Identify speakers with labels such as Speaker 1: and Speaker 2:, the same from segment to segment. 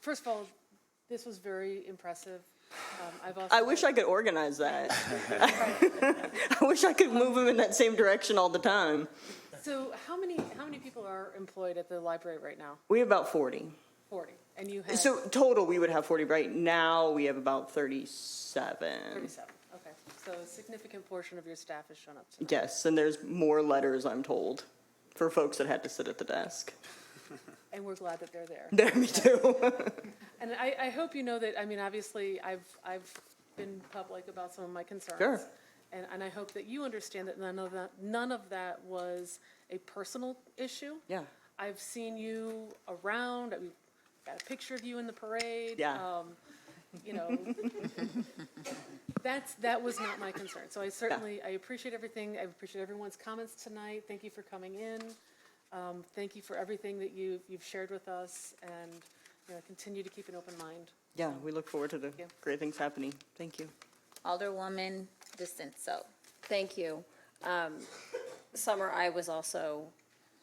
Speaker 1: first of all, this was very impressive. Um, I've also.
Speaker 2: I wish I could organize that. I wish I could move them in that same direction all the time.
Speaker 1: So how many, how many people are employed at the library right now?
Speaker 2: We have about 40.
Speaker 1: Forty, and you have
Speaker 2: So total, we would have 40. Right now, we have about 37.
Speaker 1: thirty-seven, okay. So a significant portion of your staff has shown up tonight.
Speaker 2: Yes, and there's more letters, I'm told, for folks that had to sit at the desk.
Speaker 1: And we're glad that they're there.
Speaker 2: There, me too.
Speaker 1: And I, I hope you know that, I mean, obviously, I've, I've been public about some of my concerns.
Speaker 2: Sure.
Speaker 1: And, and I hope that you understand that none of that, none of that was a personal issue.
Speaker 2: Yeah.
Speaker 1: I've seen you around, I've got a picture of you in the parade.
Speaker 2: Yeah.
Speaker 1: um, You know, that's, that was not my concern. So I certainly, I appreciate everything, I appreciate everyone's comments tonight. Thank you for coming in. Um, Thank you for everything that you, you've shared with us, and, you know, continue to keep an open mind.
Speaker 2: Yeah, we look forward to the
Speaker 1: Yeah.
Speaker 2: great things happening. Thank you.
Speaker 3: Alderwoman DeSenso. Thank you. Um, Summer, I was also,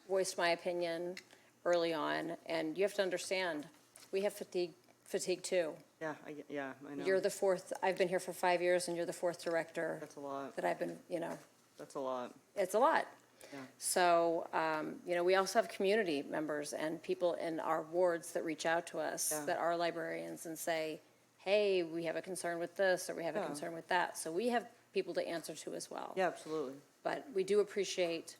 Speaker 3: voiced my opinion early on, and you have to understand, we have fatigue, fatigue too.
Speaker 2: Yeah, I, get- yeah, I know.
Speaker 3: You're the fourth, I've been here for five years, and you're the fourth director
Speaker 2: That's a lot.
Speaker 3: that I've been, you know,
Speaker 2: That's a lot.
Speaker 3: it's a lot.
Speaker 2: Yeah.
Speaker 3: So, um, you know, we also have community members and people in our wards that reach out to us,
Speaker 2: Yeah.
Speaker 3: that are librarians and say, hey, we have a concern with this, or we have a
Speaker 2: Yeah.
Speaker 3: concern with that. So we have people to answer to as well.
Speaker 2: Yeah, absolutely.
Speaker 3: But we do appreciate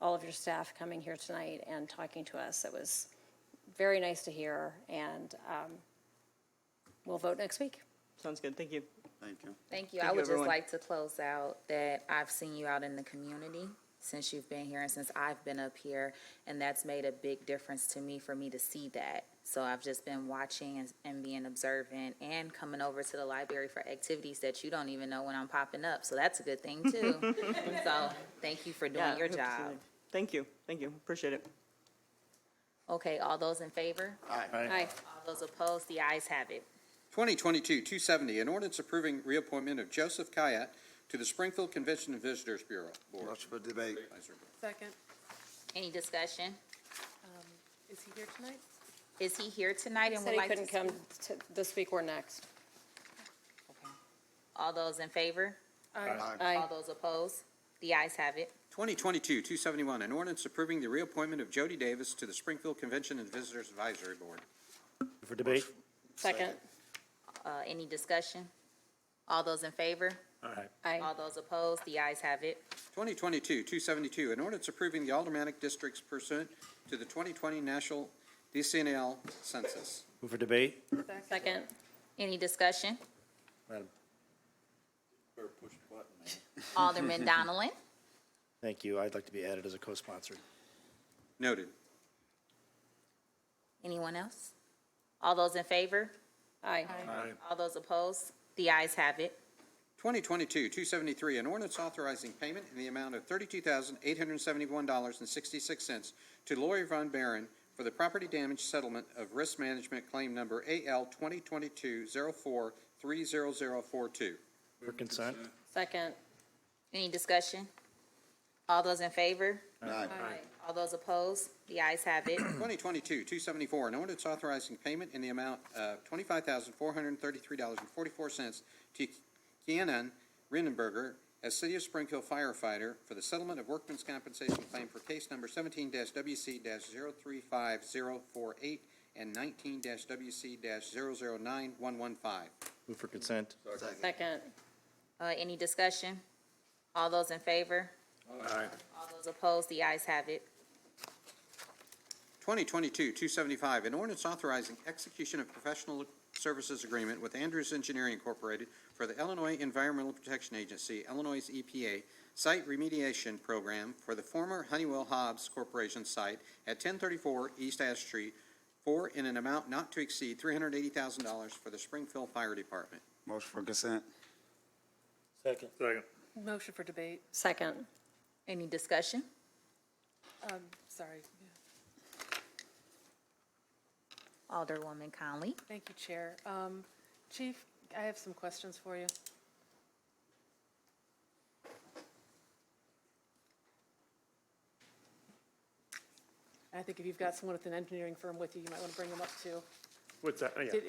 Speaker 3: all of your staff coming here tonight and talking to us. It was very nice to hear, and um, we'll vote next week.
Speaker 2: Sounds good. Thank you.
Speaker 4: Thank you.
Speaker 5: Thank you.
Speaker 2: Thank
Speaker 5: I
Speaker 2: you,
Speaker 5: would just
Speaker 2: everyone.
Speaker 5: like to close out that I've seen you out in the community since you've been here and since I've been up here, and that's made a big difference to me for me to see that. So I've just been watching and, and being observant and coming over to the library for activities that you don't even know when I'm popping up. So that's a good thing too. so thank you for doing
Speaker 2: Yeah,
Speaker 5: your
Speaker 2: hope to see
Speaker 5: job.
Speaker 2: you. Thank you. Thank you. Appreciate it.
Speaker 5: Okay, all those in favor?
Speaker 3: Aye.
Speaker 5: All those opposed? The ayes have it.
Speaker 4: 2022-270, an ordinance approving reappointment of Joseph Kayat to the Springfield Convention and Visitors Bureau Board.
Speaker 6: Motion for debate.
Speaker 4: Advisory Board.
Speaker 1: Second,
Speaker 5: Any discussion?
Speaker 1: is he here tonight?
Speaker 5: Is he here tonight and
Speaker 3: Said
Speaker 5: would
Speaker 3: he
Speaker 5: like to?
Speaker 3: couldn't
Speaker 5: speak?
Speaker 3: come t- this week or next.
Speaker 5: Okay. All those in favor? All
Speaker 3: Aye.
Speaker 5: those opposed? The ayes have it.
Speaker 4: 2022-271, an ordinance approving the reappointment of Jody Davis to the Springfield Convention and Visitors Advisory Board.
Speaker 7: For debate?
Speaker 3: Second.
Speaker 5: Uh, any discussion? All those in favor?
Speaker 7: Aye.
Speaker 3: Aye.
Speaker 5: All those opposed? The ayes have it.
Speaker 4: 2022-272, an ordinance approving the aldermanic districts pursuant to the 2020 National DCNL Census.
Speaker 7: Move for debate?
Speaker 3: Second.
Speaker 5: Any discussion?
Speaker 7: Madam,
Speaker 5: Alderman Donnelly?
Speaker 7: Thank you. I'd like to be added as a co-sponsor.
Speaker 4: Noted.
Speaker 5: Anyone else? All those in favor?
Speaker 3: Aye.
Speaker 5: All those opposed? The ayes have it.
Speaker 4: 2022-273, an ordinance authorizing payment in the amount of $32,871.66 to Lori Von Baron for the property damage settlement of risk management claim number AL 2022-04-30042.
Speaker 7: For consent?
Speaker 3: Second.
Speaker 5: Any discussion? All those in favor?
Speaker 6: Aye.
Speaker 5: All those opposed? The ayes have it.
Speaker 4: 2022-274, an ordinance authorizing payment in the amount of $25,433.44 to Kianan Rindenberger as City of Springfield firefighter for the settlement of workman's compensation claim for case number 17-WC-035048 and 19-WC-009115.
Speaker 7: Move for consent?
Speaker 3: Second.
Speaker 5: Uh, any discussion? All those in favor?
Speaker 7: Aye.
Speaker 5: All those opposed? The ayes have it.
Speaker 4: 2022-275, an ordinance authorizing execution of professional services agreement with Andrews Engineering Incorporated for the Illinois Environmental Protection Agency, Illinois EPA Site Remediation Program for the former Honeywell Hobbs Corporation site at 1034 East Ash Street for in an amount not to exceed $380,000 for the Springfield Fire Department.
Speaker 6: Motion for consent.
Speaker 7: Second. Second.
Speaker 1: Motion for debate,
Speaker 3: Second.
Speaker 5: Any discussion?
Speaker 1: um, sorry.
Speaker 5: Alderwoman Conley?
Speaker 1: Thank you, Chair. Um, Chief, I have some questions for you. I think if you've got someone with an engineering firm with you, you might want to bring them up too.
Speaker 8: What's that? Oh, yeah.
Speaker 9: Did-